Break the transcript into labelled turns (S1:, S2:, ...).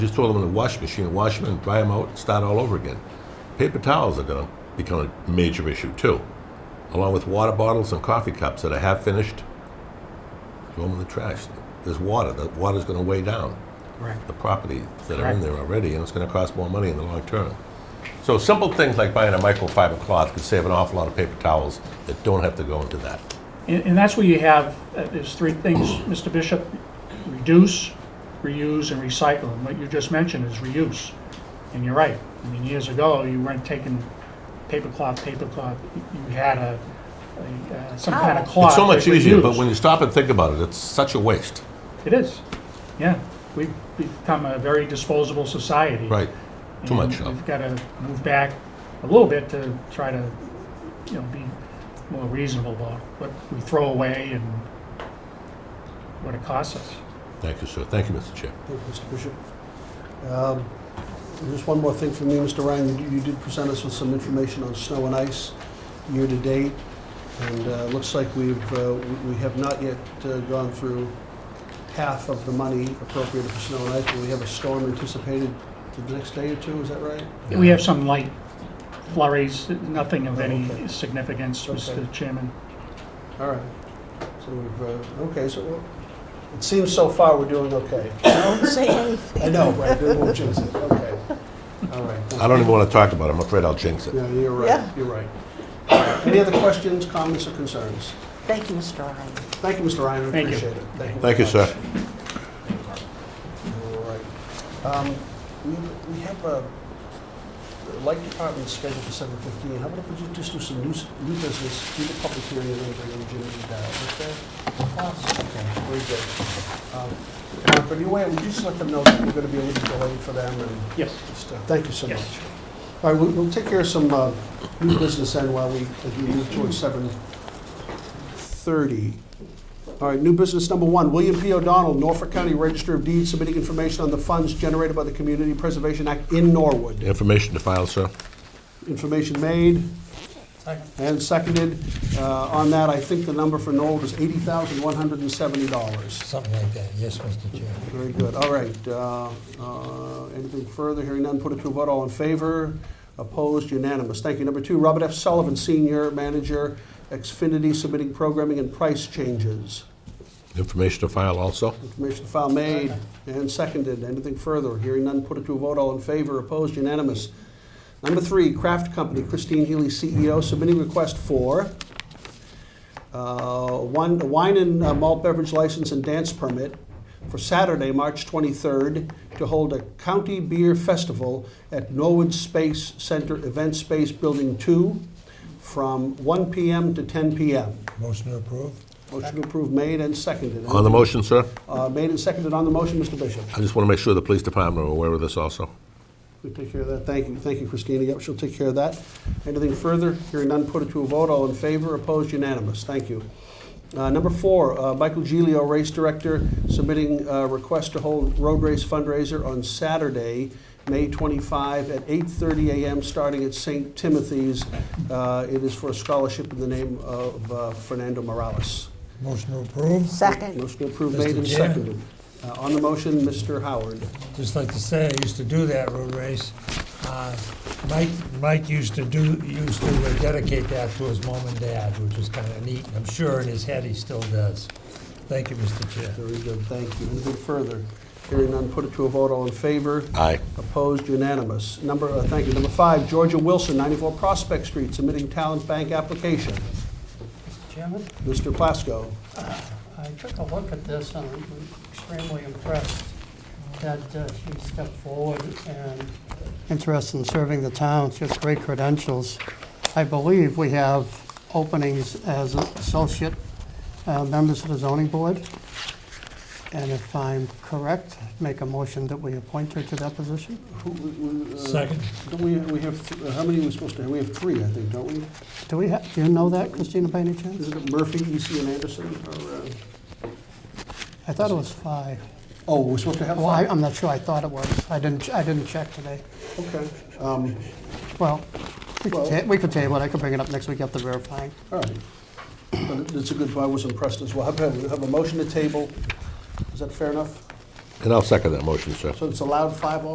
S1: Just throw them in the wash machine, and wash them and dry them out, and start all over again. Paper towels are going to become a major issue too, along with water bottles and coffee cups that are half finished. Throw them in the trash. There's water. The water's going to weigh down
S2: Right.
S1: the property that are in
S2: Correct.
S1: there already, and it's going to cost more money in the long term. So simple things like buying a microfiber cloth could save an awful lot of paper towels that don't have to go into that.
S2: And, and that's where you have, uh, there's three things, Mr. Bishop, reduce, reuse, and recycle. And what you just mentioned is reuse. And you're right. I mean, years ago, you weren't taking paper cloth, paper cloth. You had a, a, uh, some kind of cloth.
S1: It's so much
S2: that was
S1: easier, but
S2: used.
S1: when you stop and think about it, it's such a waste.
S2: It is, yeah. We've become a very disposable society.
S1: Right. Too much
S2: And
S1: of.
S2: We've got to move back a little bit to try to, you know, be more reasonable about what we throw away and what it costs us.
S1: Thank you, sir. Thank you, Mr. Chair.
S3: Thank you, Mr. Bishop. Um, Just one more thing from me, Mr. Ryan. You- You did present us with some information on snow and ice year-to-date, and uh, looks like we've, uh, we- we have not yet uh, gone through half of the money appropriated for snow and ice, but we have a storm anticipated the next day or two, is that right?
S2: We have some light flurries, nothing of any
S3: Okay.
S2: significance,
S3: Okay.
S2: Mr. Chairman.
S3: All right. So we've, uh, okay, so we're- it seems so far we're doing okay.
S4: Don't say anything.
S3: I know, right, we won't jinx it, okay. All right.
S1: I don't even want to talk about it. I'm afraid I'll jinx it.
S3: No, you're right,
S4: Yeah.
S3: you're right. Any other questions, comments, or concerns?
S4: Thank you, Mr. Ryan.
S3: Thank you, Mr. Ryan, I
S2: Thank you.
S3: appreciate it.
S1: Thank you,
S3: very
S1: sir.
S3: much. All right. Um, We we have a, the light department is scheduled for seven fifteen. How about if we ju- just do some new, s- new business, do the public hearing, and then bring in Jimmy and Dow, is that? Okay, very good. Um, Mark, are you aware, would you just let them know that we're gonna be a little delayed for them and?
S2: Yes.
S3: Just, uh, Thank you so
S2: Yes.
S3: much. All right, we'll- we'll take care of some uh, new business then while we, as we move towards 7:30. All right, new business number one, William P. O'Donnell, Norfolk County Register of Deeds, submitting information on the funds generated by the Community Preservation Act in Norwood.
S1: Information to file, sir.
S3: Information made and seconded. Uh, On that, I think the number for Norwood is $80,170.
S5: Something like that, yes, Mr. Chair.
S3: Very good, all right. uh, uh, Anything further, hearing none, put it to a vote, all in favor, opposed, unanimous. Thank you. Number two, Robert F. Sullivan, Senior Manager, Xfinity, submitting programming and price changes.
S1: Information to file also.
S3: Information file made and seconded, anything further, hearing none, put it to a vote, all in favor, opposed, unanimous. Number three, Kraft Company, Christine Healy, CEO, submitting request for uh, one, a wine and uh, malt beverage license and dance permit for Saturday, March 23rd, to hold a county beer festival at Norwood Space Center Event Space Building 2 from 1 PM to 10 PM.
S5: Motion to approve?
S3: Motion to approve made and seconded.
S1: On the motion, sir,
S3: Uh, Made and seconded on the motion, Mr. Bishop.
S1: I just want to make sure the police department are aware of this also.
S3: We take care of that. Thank you, thank you, Christina. Yep, she'll take care of that. Anything further? Hearing none, put it to a vote. All in favor, opposed, unanimous. Thank you. Uh, Number four, uh, Michael Gilio, Race Director, submitting a request to hold road race fundraiser on Saturday, May 25, at 8:30 a.m., starting at St. Timothy's. Uh, It is for a scholarship in the name of uh, Fernando Morales.
S5: Motion to approve?
S4: Second.
S3: Motion approved,
S5: Mr.
S3: made and
S5: Chairman.
S3: seconded. Uh, On the motion, Mr. Howard.
S5: Just like to say, I used to do that road race. Uh, Mike, Mike used to do, used to uh, dedicate that to his mom and dad, which was kind of neat. and I'm sure in his head he still does. Thank you, Mr. Chair.
S3: Very good, thank you. Anything further? Hearing none, put it to a vote, all in favor?
S1: Aye.
S3: Opposed, unanimous. Number, uh, thank you. Number five, Georgia Wilson, 94 Prospect Street, submitting talent bank application.
S6: Chairman,
S3: Mr. Plasko,
S6: I took a look at this and I'm extremely impressed that uh, she stepped forward and interested in serving the town. She has great credentials. I believe we have openings as associate uh, members of the zoning board. And if I'm correct, make a motion that we appoint her to that position.
S3: who, who, uh,
S5: Second.
S3: don't we, we have, th- uh, how many are we supposed to have? We have three, I think, don't we?
S6: Do we have, do you know that, Christina, by any chance?
S3: Isn't it Murphy, EC, and Anderson? or, uh,
S6: I thought it was five.
S3: Oh, we're supposed to have
S6: Well, I-
S3: five?
S6: I'm not sure. I thought it was. I didn't, I didn't check today.
S3: Okay. Um,
S6: Well, we
S3: Well-
S6: could, ta- we could table it, I could bring it up next week after verifying.
S3: All right. But it- it's a good, I was impressed as well. Have have- have a motion to table. Is that fair enough?
S7: And I'll second that motion, sir.
S1: So it's allowed five